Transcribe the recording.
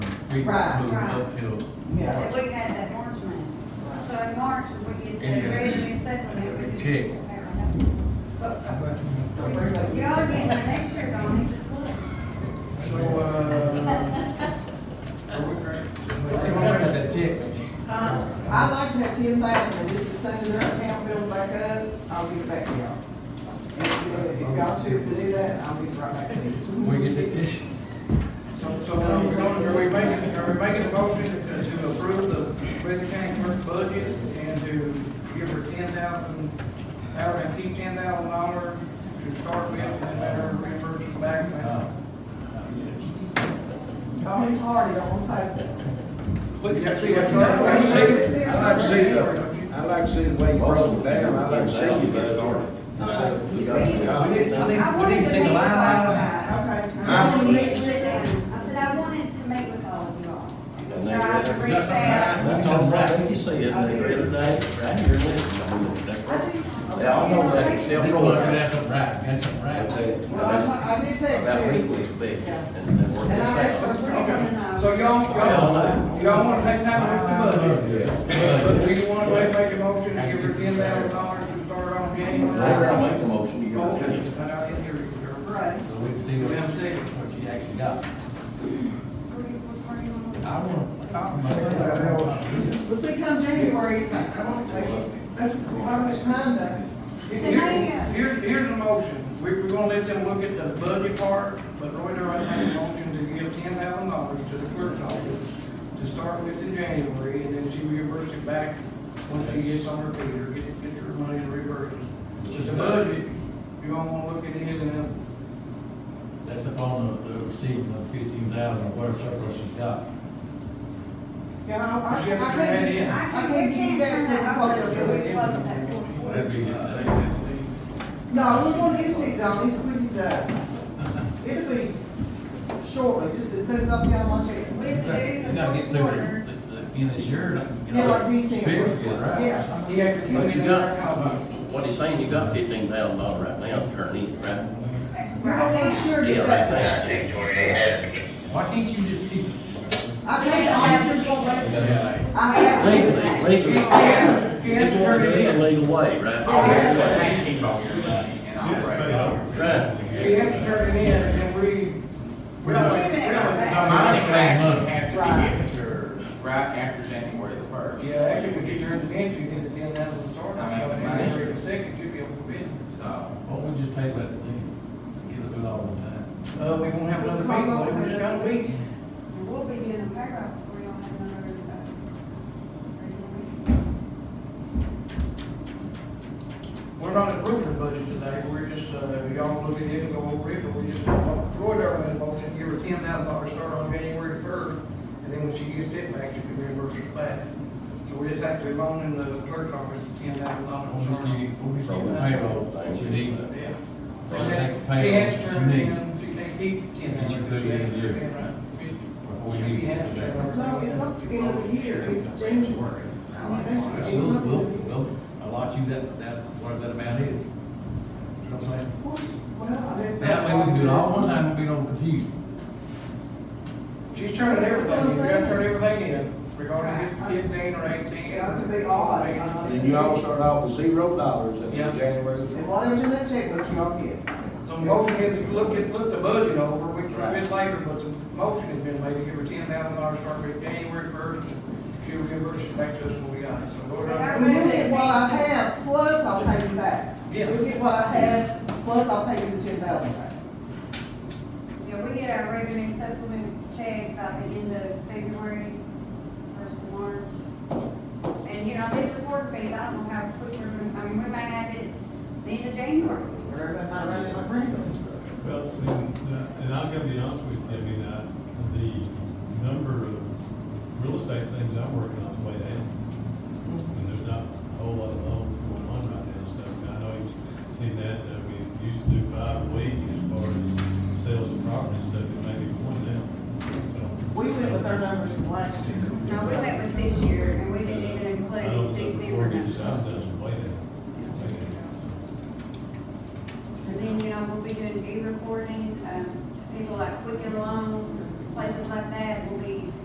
we Right, moved right. up till Yeah. March. We had that March money, so in March, we get And, the uh, revenue supplement. and we a just- check. Y'all getting the next year gone, you just look. So, uh, are we ready? They won't have that check, man. Huh? I'd uh, like to have ten thousand, and just as soon as our account bills back up, I'll give it back to y'all. And if you- if y'all choose to do that, I'll give it right back to you. we get the check. So, so are we going, are we making, are we making a motion to to approve the Breathitt County clerk's budget and to give her ten thousand, hour and keep ten thousand dollars to start with, and then let her reimburse us back? Uh, yes. Oh, it's hard, you don't want to pass it. Look, you see that's that's not- I like to see, right. it. I like to see, the- I like to see the way you broke it down, I like to see you get started. We need, I think, we need to see the line item. Okay. I wanted to sit down. I said, I wanted to meet with all of you all. And they- Try to reach And out. That's all right, you see it the other day, right here, listen, I mean, that's I right. do- They all know that They except don't for look that. that's right, that's I right. tell you, Well, I, I did text about you. weekly, big, and then work And this I asked for out. three. Okay, so y'all, y'all, y'all wanna take time to look at the budget? But do you wanna go ahead and make a motion to give her ten thousand dollars to start on January? They're gonna make a motion, you're gonna Okay, do it. but I didn't hear you, Jerry. Right. So we can see what, what she actually got. I want. Well, see, come January, I won't take it. That's how much time's that? uh, Here's, here's the motion, we, we're gonna let them look at the budget part, but Roy Darrell made a motion to give ten thousand dollars to the clerk's office to start with in January, and then she reimburses it back once she gets on her feet, or gets, gets her money and reimburses. But the budget, you all wanna look at it, and uh, then, That's upon the, the receiving of fifteen thousand, what surplus she's got. Yeah, I, I, I She can't, hasn't turned that in. I can't give you that till the close. Whatever you get, that's- No, we won't get to it, though, it's with, uh, it'll be shortly, just as soon as I see how much it's. We You have to do. gotta get through the, the, the end of this year, you Yeah, like know, these things. spirits get right. Yeah, he has to. But you got, what he's saying, you got fifteen thousand dollars right now, to turn in, right? we're gonna sure Yeah, get right that. there. Why can't you just keep? I can't, I just won't let, I have. Legally, She legally, has, she has to just want turn to it do it in, legal way, right? Yeah. Legal way. Right. she has to turn it in, and then we, we don't, we don't. No, my action has to be given to her right after January the first. Yeah, actually, when she turns it in, she gets a ten thousand start, I mean, I mean, January the second, she'll be able to bid. So, What we just paid about the thing, get it all the time. Uh, we won't have another meeting, but we just got a week. And we'll be doing a payroll before y'all have another, uh, We're not approving the budget today, we're just, uh, y'all look at it and go over it, but we just, Roy Darrell made a motion, give her ten thousand dollars start on January first, and then when she gets it back, she can reimburse her flat. So we just have to loan in the clerk's office ten thousand We'll just dollars. give, we'll just give the payroll, that you need, Yeah. We'll She just has take the to payroll, turn that it you need. in, she can't keep ten Get thousand. you through the end of the year. Before you She need has to to do that. turn it in. No, it's up to the end of the year, it's January. I want that. It's We'll, up to- we'll, we'll allot you that, that, whatever that amount is. You know what I'm saying? Well, I didn't- That way we can do it all one time, we don't confuse. She's turning everything, in. you gotta turn everything in, regarding Right. fifteen or eighteen. Yeah, it could be odd. uh, And you all start off with zero dollars at Yeah. January the And first. whatever's in that checkbook, y'all get. So motion is, to look at, look the budget over, we can Right. bid later, but the motion has been made to give her ten thousand dollars start date January first. She will reimburse it back to us when we got it, so go down. We will get what I have, plus I'll pay you back. Yeah. We'll get what I have, plus I'll pay you the ten thousand back. Yeah, we get our revenue supplement check by the end of February, first of March. And, you know, these report fees, I don't know how quick we're gonna, I mean, we may have it the end of January. Well, and, uh, and I've got to be honest with you, I mean, uh, the number of real estate things I'm working on is way down. And there's not a whole lot of loans going on right now and stuff. And I know you've seen that, uh, we used to do five a week as far as sales of property and stuff, it may be more now, so. We went with our numbers from last year. No, we went with this year, and we didn't even I don't think include the December. mortgages I've And done is way down. Way down. then, you know, we'll be doing e-recording, um, people like Quicken Loans, places like that, will be